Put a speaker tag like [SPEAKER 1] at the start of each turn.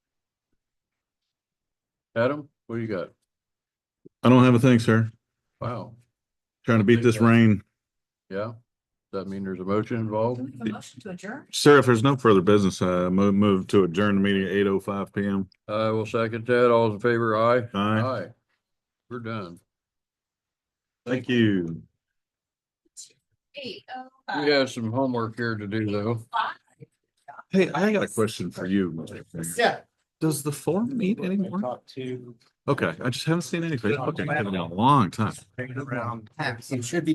[SPEAKER 1] Adam, what do you got?
[SPEAKER 2] I don't have a thing, sir.
[SPEAKER 1] Wow,
[SPEAKER 2] Trying to beat this rain.
[SPEAKER 1] yeah. Does that mean there's a motion involved?
[SPEAKER 3] Do we have a motion to adjourn?
[SPEAKER 2] Sir, if there's no further business, uh, move, move to adjourn the meeting at eight oh five PM.
[SPEAKER 1] I will second that. All in favor, aye?
[SPEAKER 2] Aye.
[SPEAKER 1] We're done.
[SPEAKER 2] Thank you.
[SPEAKER 3] Eight oh
[SPEAKER 1] We have some homework here to do though.
[SPEAKER 3] five.
[SPEAKER 2] Hey, I got a question for you. Mr. Finger.
[SPEAKER 4] Yeah.
[SPEAKER 2] Does the forum meet anymore?
[SPEAKER 4] Talk to.
[SPEAKER 2] Okay, I just haven't seen anything. Okay, it's been a long time.
[SPEAKER 4] Hanging around. It should be